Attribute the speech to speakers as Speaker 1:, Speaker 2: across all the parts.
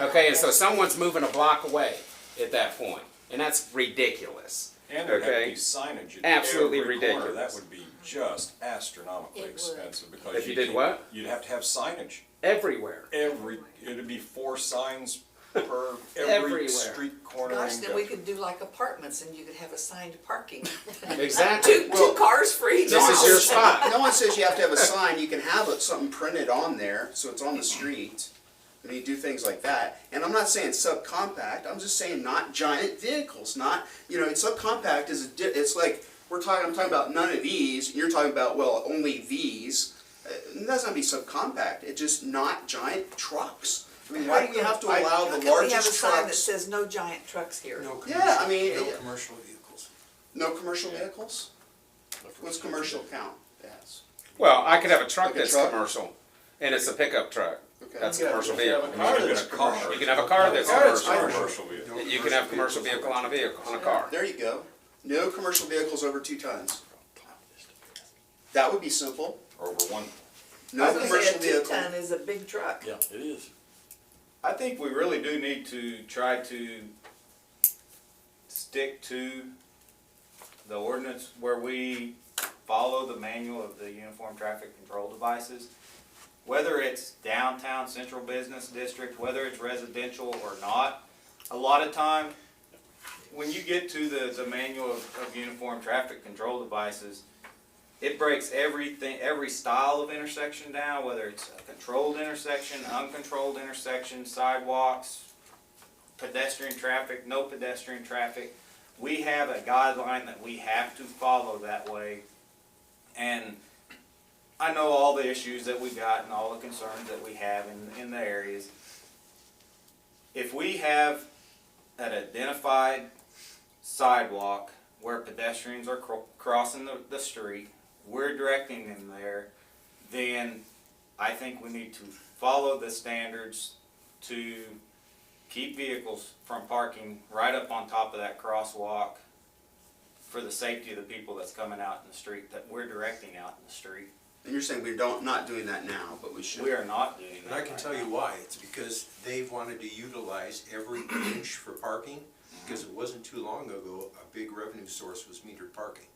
Speaker 1: Okay, and so someone's moving a block away at that point, and that's ridiculous.
Speaker 2: And there'd have to
Speaker 1: Okay.
Speaker 2: be signage at
Speaker 1: Absolutely
Speaker 2: every corner.
Speaker 1: ridiculous.
Speaker 2: That would be just astronomically
Speaker 3: It would.
Speaker 2: expensive because.
Speaker 1: If you did what?
Speaker 2: You'd have to have signage.
Speaker 1: Everywhere.
Speaker 2: Every, it'd be four signs per
Speaker 1: Everywhere.
Speaker 2: every street corner.
Speaker 3: Gosh,
Speaker 2: and
Speaker 3: then we
Speaker 2: gutter.
Speaker 3: could do like apartments and you could have assigned parking.
Speaker 1: Exactly.
Speaker 3: Two, two cars for each
Speaker 1: This is your
Speaker 3: house.
Speaker 1: spot.
Speaker 4: No one says you have to have a sign, you can have it- something printed on there, so it's on the street. I mean, do things like that. And I'm not saying subcompact, I'm just saying not giant vehicles, not, you know, it's subcompact is, a di- it's like, we're talking, I'm talking about none of these, and you're talking about, well, only these. Uh, That's not be subcompact, it's just not giant trucks. I mean, why do we have to allow
Speaker 3: How
Speaker 4: the
Speaker 3: come we have a
Speaker 4: largest
Speaker 3: sign that
Speaker 4: trucks?
Speaker 3: says no giant trucks here?
Speaker 5: No
Speaker 4: Yeah, I
Speaker 5: commercial,
Speaker 4: mean,
Speaker 5: no
Speaker 4: it-
Speaker 5: commercial vehicles.
Speaker 4: No commercial vehicles? What's commercial count as?
Speaker 1: Well, I could have a truck
Speaker 4: Like a
Speaker 1: that's
Speaker 4: truck?
Speaker 1: commercial, and it's a pickup truck.
Speaker 4: Okay.
Speaker 1: That's a
Speaker 4: Yeah,
Speaker 1: commercial
Speaker 2: If you have
Speaker 1: vehicle.
Speaker 2: a car
Speaker 4: You
Speaker 2: that's
Speaker 4: can
Speaker 2: commercial.
Speaker 1: You can have a car that's
Speaker 4: Car that's
Speaker 1: commercial.
Speaker 2: Commercial vehicle.
Speaker 1: You can have commercial vehicle on a vehicle, on a car.
Speaker 4: There you go. No commercial vehicles over two tons. That would be simple.
Speaker 2: Over one.
Speaker 3: I
Speaker 4: No
Speaker 3: was gonna say
Speaker 4: commercial
Speaker 3: a two
Speaker 4: vehicle.
Speaker 3: ton is a big truck.
Speaker 6: Yeah, it is.
Speaker 7: I think we really do need to try to stick to the ordinance where we follow the manual of the Uniform Traffic Control Devices. Whether it's downtown, central business district, whether it's residential or not, a lot of time, when you get to the, the manual of, of Uniform Traffic Control Devices, it breaks everything, every style of intersection down, whether it's a controlled intersection, uncontrolled intersection, sidewalks, pedestrian traffic, no pedestrian traffic. We have a guideline that we have to follow that way. And I know all the issues that we got and all the concerns that we have in, in the areas. If we have an identified sidewalk where pedestrians are cro- crossing the, the street, we're directing them there, then I think we need to follow the standards to keep vehicles from parking right up on top of that crosswalk for the safety of the people that's coming out in the street, that we're directing out in the street.
Speaker 4: And you're saying we don't, not doing that now, but we
Speaker 7: We
Speaker 4: should.
Speaker 7: are not doing that.
Speaker 5: And I can
Speaker 7: right
Speaker 5: tell you
Speaker 7: now.
Speaker 5: why, it's because they've wanted to utilize every inch for parking, because it wasn't too long ago, a big revenue source was metered parking.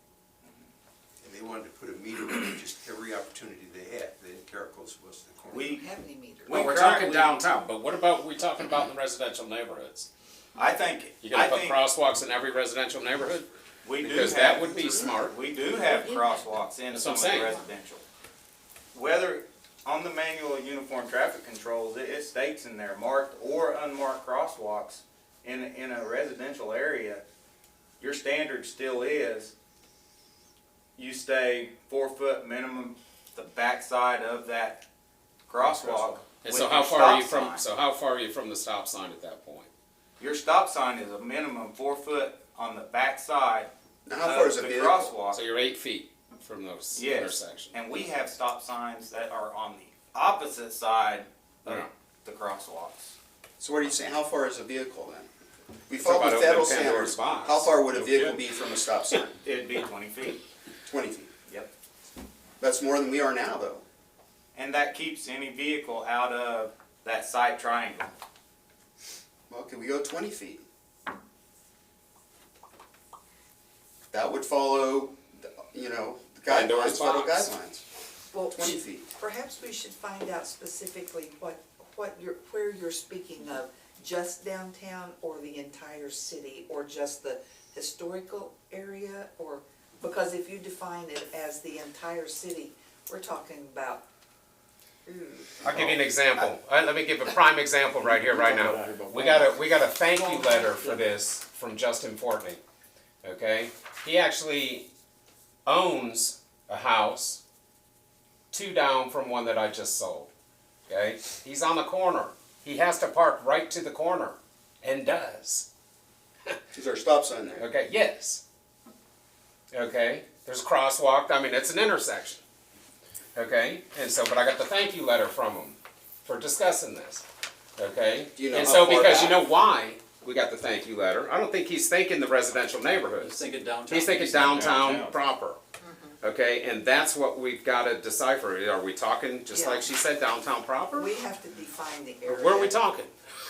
Speaker 5: And they wanted to put a meter in just every opportunity they had, they didn't care if it was the corner.
Speaker 3: We
Speaker 7: We,
Speaker 3: don't have any meters.
Speaker 7: We
Speaker 1: Well, we're talking
Speaker 7: currently-
Speaker 1: downtown, but what about, we're talking about in the residential neighborhoods?
Speaker 7: I think,
Speaker 1: You
Speaker 7: I
Speaker 1: gonna put
Speaker 7: think
Speaker 1: crosswalks in every residential neighborhood?
Speaker 7: we do
Speaker 1: Because that
Speaker 7: have-
Speaker 1: would be smart.
Speaker 7: We do have crosswalks in
Speaker 1: That's what
Speaker 7: some of
Speaker 1: I'm
Speaker 7: the
Speaker 1: saying.
Speaker 7: residential. Whether, on the manual of uniform traffic controls, it, it states in there marked or unmarked crosswalks in, in a residential area, your standard still is, you stay four foot minimum, the backside of that crosswalk.
Speaker 1: And
Speaker 7: with
Speaker 1: so
Speaker 7: your
Speaker 1: how far are you
Speaker 7: stop
Speaker 1: from,
Speaker 7: sign.
Speaker 1: so how far are you from the stop sign at that point?
Speaker 7: Your stop sign is a minimum four foot on the backside
Speaker 4: Now, how far
Speaker 7: of
Speaker 4: is a
Speaker 7: the
Speaker 4: vehicle?
Speaker 7: crosswalk.
Speaker 1: So you're eight feet from those
Speaker 7: Yes.
Speaker 1: intersections.
Speaker 7: And we have stop signs that are on the opposite side of
Speaker 1: Yeah.
Speaker 7: the crosswalks.
Speaker 4: So what are you saying, how far is a vehicle then? We
Speaker 1: Talk
Speaker 4: follow
Speaker 1: about
Speaker 4: the
Speaker 1: opening
Speaker 4: federal
Speaker 1: Pandora's
Speaker 4: standards,
Speaker 1: box.
Speaker 4: how far would a
Speaker 2: No
Speaker 4: vehicle
Speaker 2: kidding.
Speaker 4: be from a stop sign?
Speaker 7: It'd be twenty feet.
Speaker 4: Twenty feet.
Speaker 7: Yep.
Speaker 4: That's more than we are now, though.
Speaker 7: And that keeps any vehicle out of that side triangle.
Speaker 4: Well, can we go twenty feet? That would follow, the- you know, the guidelines,
Speaker 1: Pandora's
Speaker 4: federal
Speaker 1: box.
Speaker 4: guidelines,
Speaker 3: Well,
Speaker 4: twenty feet.
Speaker 3: perhaps we should find out specifically what, what you're, where you're speaking of, just downtown or the entire city, or just the historical area, or, because if you define it as the entire city, we're talking about, hmm, ooh,
Speaker 1: I'll give you an example. Uh, let me give a prime example right here, right now. We got a, we got a thank you letter for this from Justin Fortney. Okay? He actually owns a house two down from one that I just sold. Okay? He's on the corner. He has to park right to the corner and does.
Speaker 4: Is there a stop sign there?
Speaker 1: Okay, yes. Okay, there's a crosswalk. I mean, it's an intersection. Okay, and so, but I got the thank you letter from him for discussing this. Okay,
Speaker 4: Do you know
Speaker 1: and
Speaker 4: how
Speaker 1: so
Speaker 4: far
Speaker 1: because you
Speaker 4: back?
Speaker 1: know why we got the thank you letter, I don't think he's thinking the residential
Speaker 6: He's
Speaker 1: neighborhoods.
Speaker 6: thinking downtown.
Speaker 1: He's thinking downtown, proper.
Speaker 3: Mm-hmm.
Speaker 1: Okay, and that's what we've got to decipher. Are we talking just
Speaker 3: Yeah.
Speaker 1: like she said, downtown proper?
Speaker 3: we have to define the
Speaker 1: Or
Speaker 3: area.
Speaker 1: Where are we talking?